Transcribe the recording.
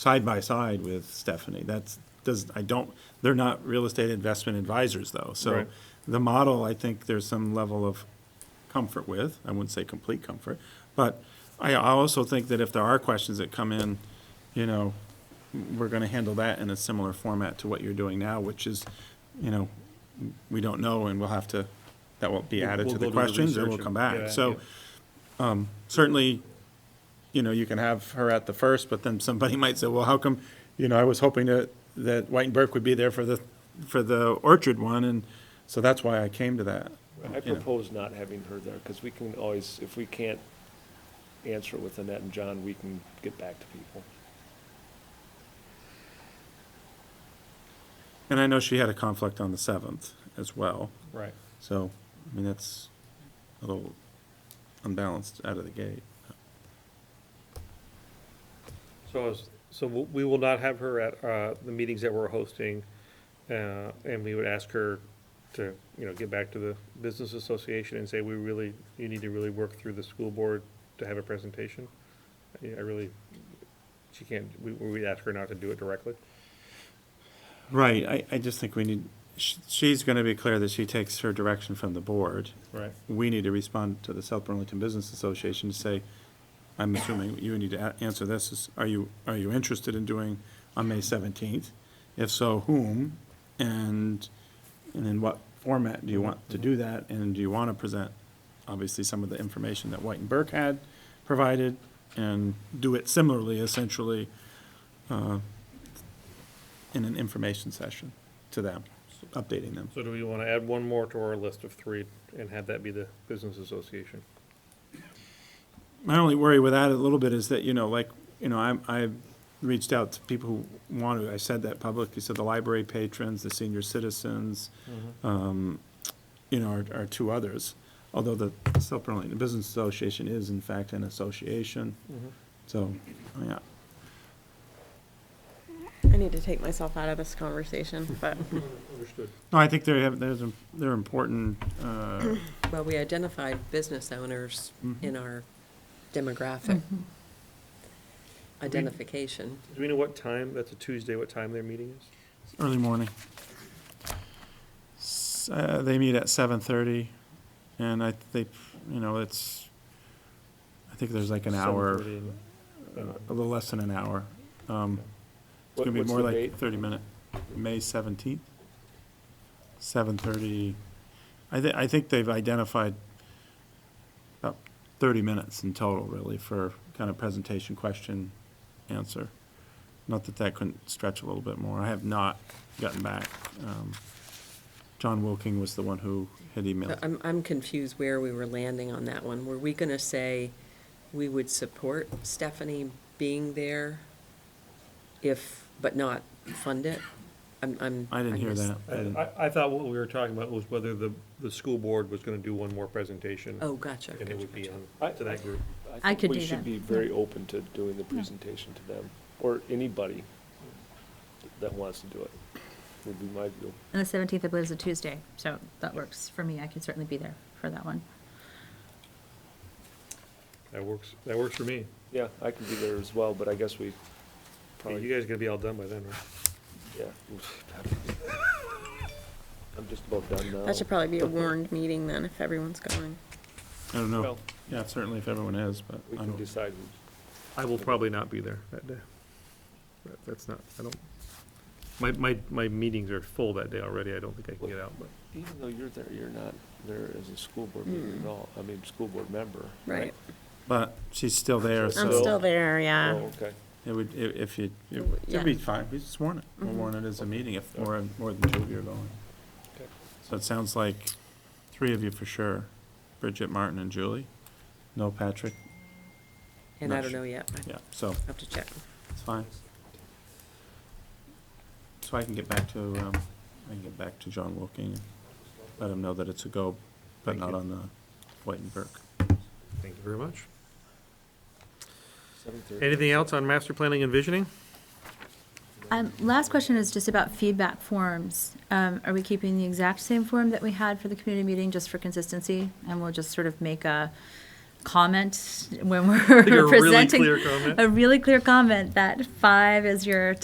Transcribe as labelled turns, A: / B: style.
A: side by side with Stephanie. That's, does, I don't, they're not real estate investment advisors though. So
B: Right.
A: the model, I think there's some level of comfort with, I wouldn't say complete comfort. But I, I also think that if there are questions that come in, you know, we're gonna handle that in a similar format to what you're doing now, which is, you know, we don't know and we'll have to, that will be
B: We'll-
A: added to
B: we'll
A: the
B: go do the
A: questions and
B: research
A: we'll
B: and-
A: come
B: yeah,
A: back. So,
B: yeah.
A: um, certainly, you know, you can have her at the first, but then somebody might say, well, how come, you know, I was hoping that, that White and Burke would be there for the, for the Orchard one, and so that's why I came to that.
B: I
A: you know.
B: propose not having her there, because we can always, if we can't answer it with Annette and John, we can get back to people.
A: And I know she had a conflict on the seventh as well,
B: Right.
A: so, I mean, that's a little unbalanced out of the gate.
C: So, is- so w- we will not have her at uh, the meetings that we're hosting, uh, and we would ask her to, you know, get back to the business association and say, we really, you need to really work through the school board to have a presentation. Yeah, I really, she can't, we, we ask her not to do it directly.
A: Right, I, I just think we need, sh- she's gonna be clear that she takes her direction from the board.
C: Right.
A: We need to respond to the South Burlington Business Association to say, I'm assuming you need to a- answer this, is, are you, are you interested in doing on May seventeenth? If so, whom? And, and in what format do you want to do that? And do you wanna present, obviously, some of the information that White and Burke had provided? And do it similarly, essentially, uh, in an information session to them, updating them.
C: So do we want to add one more to our list of three and have that be the business association?
A: My only worry with that a little bit is that, you know, like, you know, I'm, I reached out to people who want to, I said that publicly, so the library patrons, the senior citizens, um, you know, are, are two others. Although the South Burlington Business Association is in fact an association, so, yeah.
D: I need to take myself out of this conversation, but,
C: Understood.
A: No, I think they have, there's, a- they're important, uh,
E: Well, we identified business owners
A: Mm-hmm.
E: in our demographic identification.
C: Do we know what time, that's a Tuesday, what time their meeting is?
A: early morning. S- Uh, they meet at seven thirty, and I, they, you know, it's, I think there's like an hour.
C: 7:30 and-
A: a little less than an hour. Um, It's
B: What-
A: gonna be
B: what's
A: more
B: the
A: like
B: date?
A: thirty minute, May seventeenth, seven thirty. I thi- I think they've identified about thirty minutes in total, really, for kind of presentation, question, answer. Not that that couldn't stretch a little bit more. I have not gotten back. Um, John Wilking was the one who had
E: So
A: emailed.
E: Uh, I'm, I'm confused where we were landing on that one. Were we going to say we would support Stephanie being there if, but not fund it? I'm, I'm.
A: I didn't hear
E: missed-
A: that. I didn't-
C: I, I thought what we were talking about was whether the, the school board was gonna do one more presentation.
E: Oh, gotcha.
C: And it
E: gotcha,
C: would be
E: gotcha.
C: on, to that group.
F: I
B: think
F: could
B: We
F: do
B: should
F: that,
B: be
F: yeah.
B: very open to doing the presentation to them, or anybody that wants to do it, would be my view.
F: And the seventeenth, I believe, is a Tuesday, so that works for me. I can certainly be there for that one.
C: That works, that works for me.
B: Yeah, I can be there as well, but I guess we
C: Hey, You
B: probably,
C: guys are gonna be all done by then, right?
B: yeah. I'm just about done now.
D: that should probably be a warned meeting then, if everyone's going.
A: I don't know.
B: Well,
A: Yeah, certainly if everyone is, but
B: We
A: I
B: can
A: don't.
B: decide.
C: I will probably not be there that day. That- That's not, I don't, my, my, my meetings are full that day already. I don't think I can get out, but.
B: Even though you're there, you're not there as a school board member at all, I mean, school board member.
D: Right.
A: But she's still there, so.
D: I'm
B: So-
D: still there,
B: Oh,
D: yeah.
B: okay.
A: It would, i- if you, it-
D: W-
A: it'd be
D: yeah.
A: fine, we just warn it, we'll warn it as a meeting if more, more than two of you are going.
B: Okay.
A: So it sounds like three of you for sure, Bridget, Martin, and Julie, no Patrick,
E: And I
A: Not
E: don't
A: sure.
E: know yet. I
A: yeah, so,
E: have to check.
A: it's fine. So I can get back to, um, I can get back to John Wilking, and let him know that it's a go, but
C: Thank
A: not
C: you.
A: on the White and Burke.
C: Thank you very much.
B: Seven thirty.
C: Anything else on master planning and visioning?
F: Um, last question is just about feedback forms. Um, are we keeping the exact same form that we had for the community meeting just for consistency? And we'll just sort of make a, comment when
C: a
F: we're
C: really
F: presenting?
C: clear comment?
F: A really clear comment that five is your